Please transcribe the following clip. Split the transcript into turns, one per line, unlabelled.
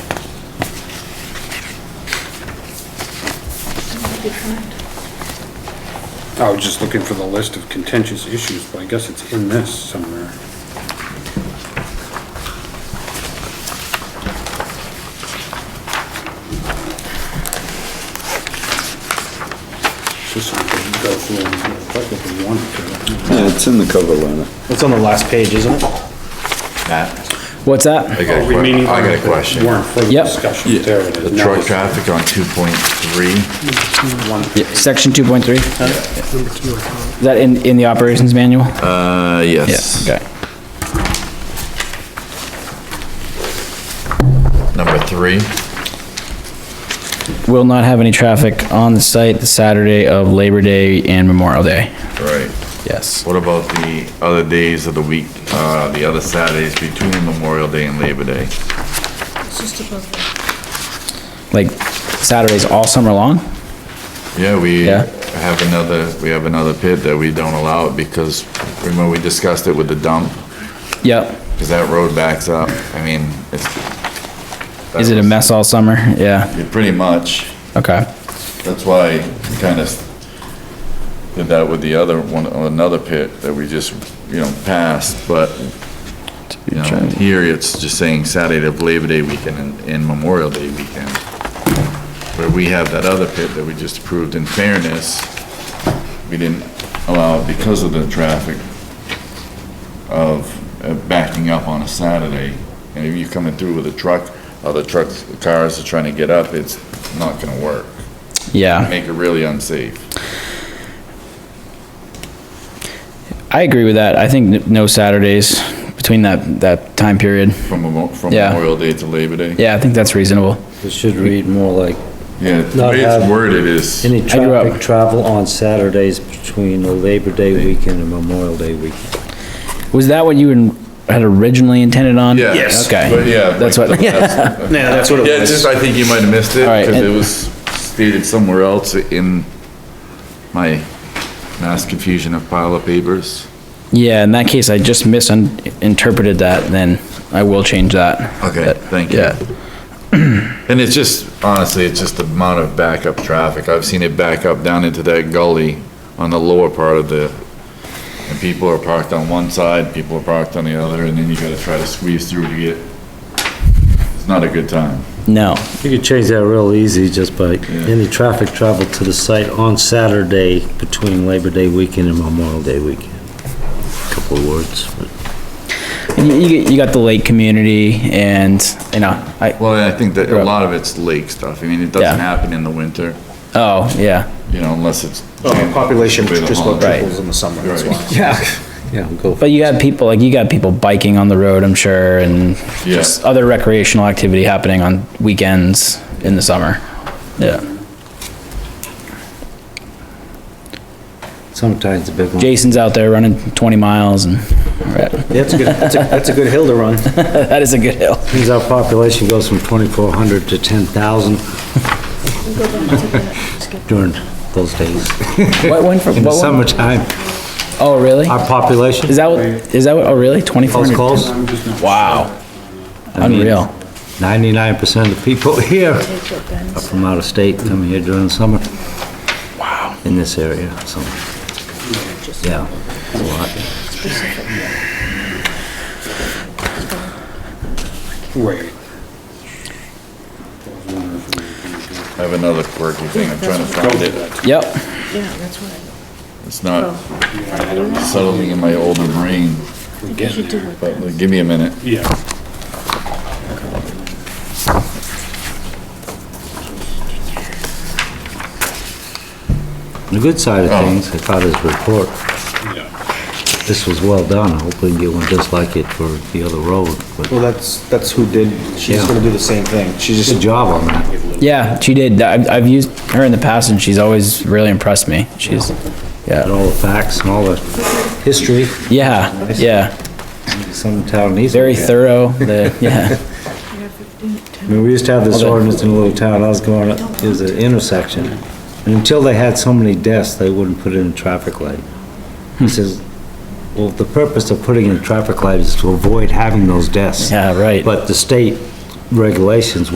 be correct.
I was just looking for the list of contentious issues, but I guess it's in this somewhere. This one we can go through and look if we wanted to.
Yeah, it's in the cover letter.
It's on the last page, isn't it?
Matt,
What's
I
that?
got a
We may
que-
need
I got a
to
question.
uh, Warrant for the
Yep.
discussion, there it
The
is.
truck traffic on two point three,
Yeah, Section 2.3? Is that in, in the operations manual?
uh, yes.
Yeah, okay.
Number three,
Will not have any traffic on the site the Saturday of Labor Day and Memorial Day.
right.
Yes.
What about the other days of the week, uh, the other Saturdays between Memorial Day and Labor Day?
It's just above that.
Like Saturdays all summer long?
Yeah, we
Yeah.
have another, we have another pit that we don't allow it because remember we discussed it with the dump?
Yep.
Cause that road backs up. I mean, it's.
Is it a mess all summer? Yeah,
Yeah, Pretty much.
okay.
That's why we kind of did that with the other one, another pit that we just, you know, passed, but, you know, here it's just saying Saturday of Labor Day weekend and- and Memorial Day weekend. Where we have that other pit that we just approved in fairness, we didn't allow it because of the traffic of uh, backing up on a Saturday. And if you're coming through with a truck, other trucks, cars are trying to get up, it's not gonna work
Yeah,
make it really unsafe.
I agree with that. I think n- no Saturdays between that, that time period.
From Memo- from
Yeah.
Memorial Day to Labor Day?
Yeah, I think that's reasonable.
It should read more like,
Yeah, the
Not
way it's
have-
worded is,
any
I grew up-
traffic travel on Saturdays between the Labor Day weekend and Memorial Day weekend.
Was that what you in- had originally intended on?
yeah. Yes. But
Okay,
yeah.
that's
like-
what,
Yeah, that's what
Yeah, just, I think you might have missed it,
All right,
because it
and-
was stated somewhere else in my mass confusion of pile of papers.
yeah, in that case, I just misinterpreted that, then I will change that.
Okay,
But-
thank you.
yeah.
And it's just, honestly, it's just the amount of backup traffic. I've seen it back up down into that gully on the lower part of the, and people are parked on one side, people are parked on the other, and then you gotta try to squeeze through to get, it's not a good time.
No,
You could change that real easy just by, any traffic travel to the site on Saturday between Labor Day weekend and Memorial Day weekend. Couple of words.
And you, you got- you got the lake community and, you know, I,
Well, I think that a lot of it's lake stuff. I mean, it doesn't
Yeah.
happen in the winter,
oh, yeah,
you know, unless it's.
Oh, Population
Way the
just about
holiday.
triples in the summer, that's
Right.
why.
Yeah, go.
but you got people, like, you got people biking on the road, I'm sure, and
Yeah.
just other recreational activity happening on weekends in the summer. Yeah.
Sometimes the big one.
Jason's out there running twenty miles and,
Yeah, That's a good, that's a, that's a good hill to run.
that is a good hill.
Means our population goes from 2,400 to 10,000
We'll go back to that. Skip.
during those days.
What went from,
In the Uh,
what went?
summertime,
Oh, really?
our population,
Is that what, is that what, oh, really? Twenty-four
close
hundred?
calls,
Wow. Unreal.
99% of people here
Take what Ben's-
are from out of state, come here during the summer. Wow. In this area, so. Yeah, it's a lot.
Wait.
I have another quirky thing. I'm trying to find it.
Yep.
Yeah, that's what I,
It's not
I
Oh.
don't know.
settling in my older brain,
I think you do it.
but give me a minute.
Yeah.
The good side of
Oh.
things, I thought his report, this was well done, hopefully you get one just like it for the other road, but
Well, that's, that's who did, she's
Yeah.
gonna do the same thing. She's
good
just,
job on that.
Yeah, she did. I've, I've used her in the past and she's always really impressed me. She's,
Got all the facts and all the history,
yeah, yeah.
some town needs. it.
Very thorough, the, yeah.
Yeah, 15, 10.
I mean, we used to have this
Okay.
ordinance in a little town, I was going, up- it was an intersection. And until they had so many deaths, they wouldn't put in a traffic light. He says, well, the purpose of putting in a traffic light is to avoid having those deaths.
Yeah, right.
But the state regulations